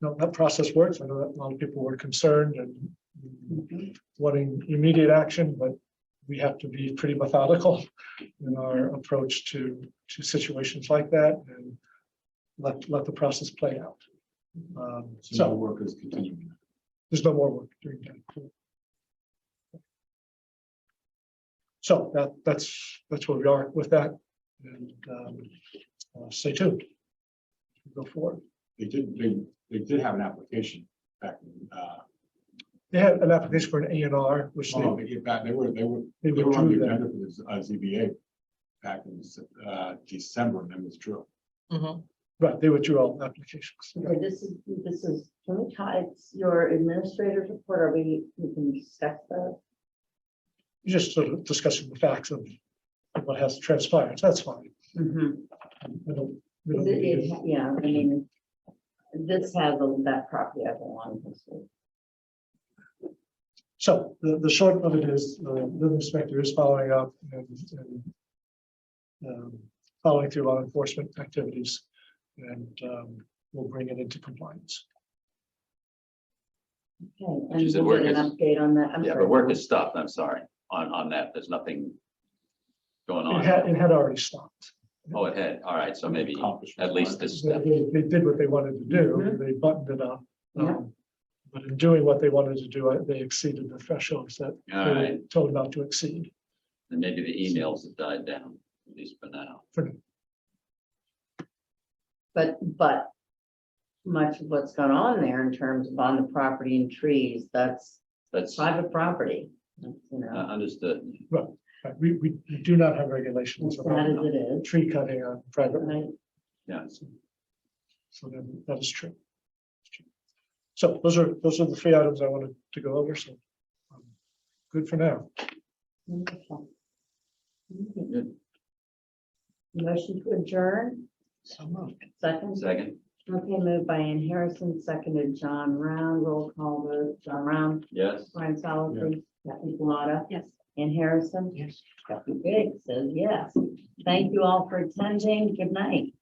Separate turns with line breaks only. know, that process works. I know that a lot of people were concerned and wanting immediate action, but we have to be pretty methodical in our approach to, to situations like that and let, let the process play out. Um,
So
So
work is continuing.
there's no more work during that. So that, that's, that's where we are with that. And um, uh, stay tuned. Go forward.
They did, they, they did have an application back, in, uh,
They had an application for an A and R, which
well,
they,
they get back, they were, they were,
they
they were on
withdrew
the
that.
agenda for this, uh, ZBA back in, uh, December and then withdrew.
Right, they withdrew all applications.
Okay, this is, this is, can we tie, it's your administrator's report, are we, we can discuss that?
You're Just sort of discussing the facts of of what has transpired. That's fine.
Mhm.
We don't- we
Is
don't
it,
need to-
it- yeah, I mean, this has a- that property as a long history.
So the, the short of it is, uh, the building inspector is following up and, and um, following through on enforcement activities and um, we'll bring it into compliance.
Okay,
She
and
said
we'll
work
get an
is-
update on that. I'm
Yeah,
sorry.
but work is stopped, I'm sorry, on, on that, there's nothing going
It had,
on.
it had already stopped.
Oh, it had, all right, so maybe at least this
They,
step,
they they did what they wanted to do.
Mhm.
They buttoned it up.
Yeah.
Um, But in doing what they wanted to do, uh, they exceeded the thresholds that
all
they were
right,
told not to exceed.
and maybe the emails have died down, at least for now.
But, but much of what's gone on there in terms of on the property and trees, that's
That's uh,
private property. You know,
understood,
Right, We, we we do not have regulations
as bad
about
as it is,
tree cutting on private land.
right?
yes,
So then that is true. So those are, those are the three items I wanted to go over, so. um, Good for now.
Wonderful.
Good.
Motion to adjourn,
So moved.
second.
second,
Okay, moved by Ann Harrison, seconded John Round, roll call vote, John Round,
yes.
Brian Solomon, Kathy Bellata.
Yes.
Ann Harrison.
Yes.
Kathy Biggs says yes. Thank you all for attending. Good night.